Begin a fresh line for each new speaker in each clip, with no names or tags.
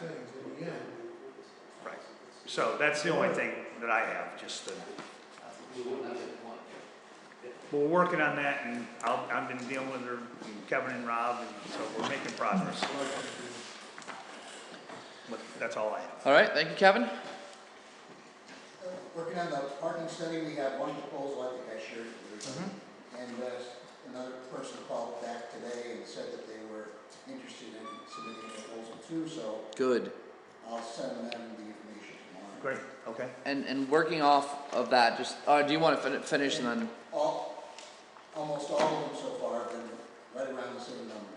things in the end.
Right. So that's the only thing that I have, just the. Well, We're working on that and I'll, I've been dealing with her, and Kevin and Rob, and so we're making progress. But that's all I have.
All right, thank you, Kevin.
Working on the parking study, we have one proposal, I think I shared it with you. And uh, another person called back today and said that they were interested in submitting a proposal too, so
Good.
I'll send them the information tomorrow.
Great, okay.
And and working off of that, just uh, do you want to fin- finish and then?
All, almost all of them so far have been right around the same number.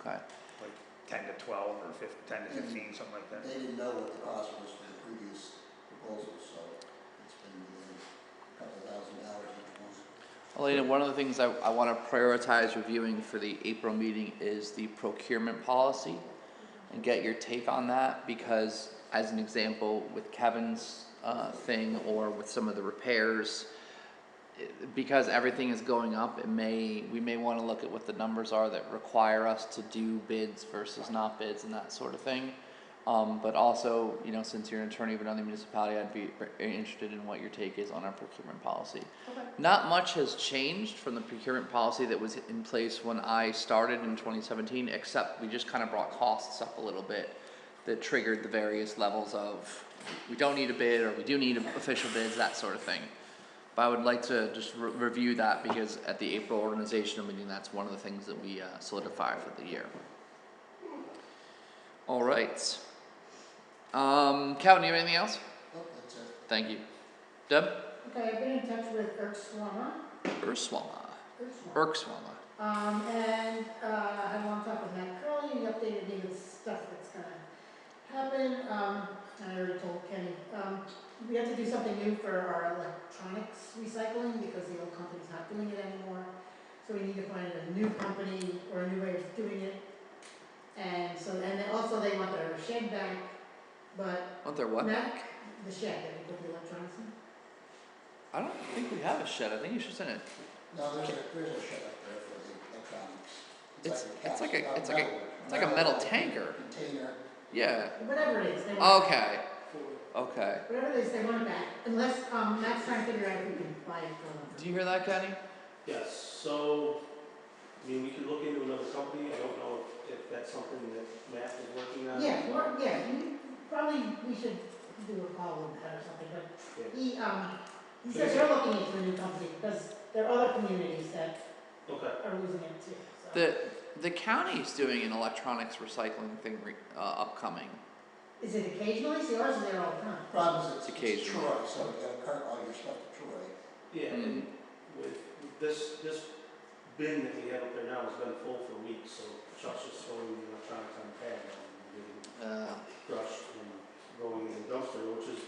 Okay.
Like ten to twelve or fif- ten to fifteen, something like that.
They didn't know what the cost was for the previous proposals, so it's been within a couple thousand dollars each one. Oh,
Elena, one of the things I, I want to prioritize reviewing for the April meeting is the procurement policy and get your take on that because, as an example, with Kevin's uh, thing or with some of the repairs, it- because everything is going up, it may we may want to look at what the numbers are that require us to do bids versus not bids and that sort of thing. Um, but also, you know, since you're an attorney of another municipality, I'd be ver- interested in what your take is on our procurement policy. Not much has changed from the procurement policy that was in place when I started in twenty seventeen, except we just kind of brought costs up a little bit that triggered the various levels of we don't need a bid or we do need official bids, that sort of thing. But I would like to just re- review that because at the April organizational meeting, that's one of the things that we uh, solidify for the year. All right. Um, Calvin, you have anything else?
Nope, that's it.
Thank you. Deb?
Okay, I've been in touch with Eric Swanner,
Urswama.
Eric Swanner.
Urkswama.
Um, and, uh, I want to talk with Matt Curley, he updated me with stuff that's gonna happen, um, and I already told Kenny. Um, we have to do something new for our electronics recycling because the old company's not doing it anymore. So we need to find a new company or a new way of doing it. And so, and then also they want their shed back, but
Aren't there what?
Matt, the shed that we put the electronics in.
I don't think we have a shed. I think it's just in a.
No, there's a, there's a shed up there for the electronics.
It's it's like a
capsule-
it's like a
metal-
it's like a metal tanker.
Container.
Yeah.
Whatever it is, they
Oh,
want,
Okay. Okay.
whatever it is, they want it back, unless, um, Matt's trying to figure out if we can buy it from
Do you hear that, Kenny?
Yes, so, I mean, we could look into another company, I don't know if- if that's something that Matt is working on.
them. Yeah, or, yeah, you, probably, we should do a call with that or something, but
Yeah,
he, um, he says they're looking into a new company, because there are other communities that
Okay,
are losing it too, so.
The the county's doing an electronics recycling thing re, uh, upcoming.
Is it occasionally, see, ours is there all the time.
Problem
It's
is, it's- it's
occasional.
Troy, so you gotta cart all your stuff to Troy.
yeah,
Mm.
and
Mm-hmm.
with with this, this bin that we have up there now has been full for weeks, so Chuck's just throwing the electronics on the pad and getting
Uh,
crushed and going in the dumpster, which is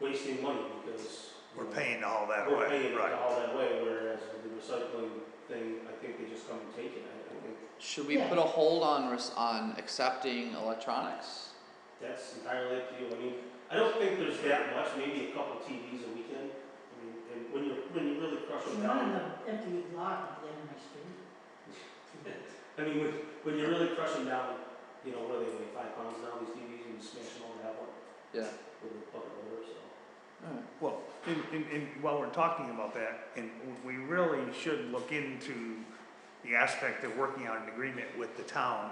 wasting money because. you
We're
know,
paying all that
We're paying
away,
it
right?
all that way, whereas with the recycling thing, I think they just come and take it, I I think
should we
Yeah.
put a hold on res- on accepting electronics?
That's entirely up to you. I mean, I don't think there's that much, maybe a couple TVs a weekend. I mean, and when you're, when you really crush
She
them
wanted
down,
an empty lot at the end of my street.
I mean, when, when you really crush them down, you know, what are they, like five pounds now, these TVs, and you smash them all that one
Yeah.
with a bucket loader, so.
All right.
Well, and, and, and while we're talking about that, and we really should look into the aspect of working out an agreement with the town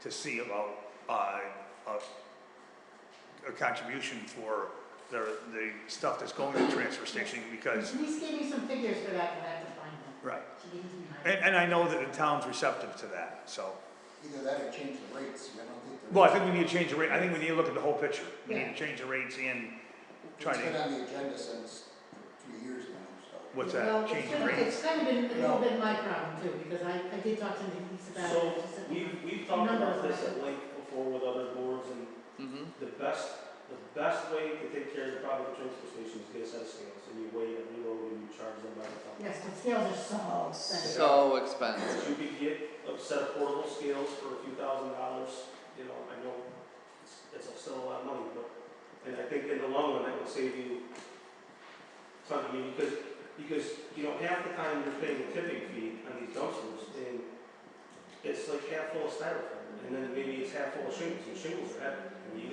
to see about, uh, a, a contribution for the, the stuff that's going to the transfer station, because,
Denise gave me some figures for that, but I have to find them.
right.
She gave them to me.
And, and I know that the town's receptive to that, so.
Either that or change the rates, I don't think. the
Well, I
rates-
think we need to change the rate, I think we need to look at the whole picture. We need
Yeah.
to change the rates and try
It's been
to,
on the agenda since two years now, so.
what's
Well,
that,
it's
change the
kind of-
rates?
It's kind of been a
No.
little bit my problem too, because I, I did talk to Denise about
So,
it. She said-
We've, we've talked
Number
about
of
this at
them.
length before with other boards, and
Mm-hmm.
the best, the best way to take care of the problem with transfer stations is get a set of scales, and you weigh it, and you load it, and you charge them by the ton.
Yes, the scales are so expensive.
So expensive.
You could get a set of portable scales for a few thousand dollars, you know, I know it's, it's still a lot of money, but, and I think in the long run, that would save you some, I mean, because, because, you know, half the time you're paying a tipping fee on these dumpsters, and it's like half full of styrofoam, and then maybe it's half full of shingles, and shingles are heavy, and you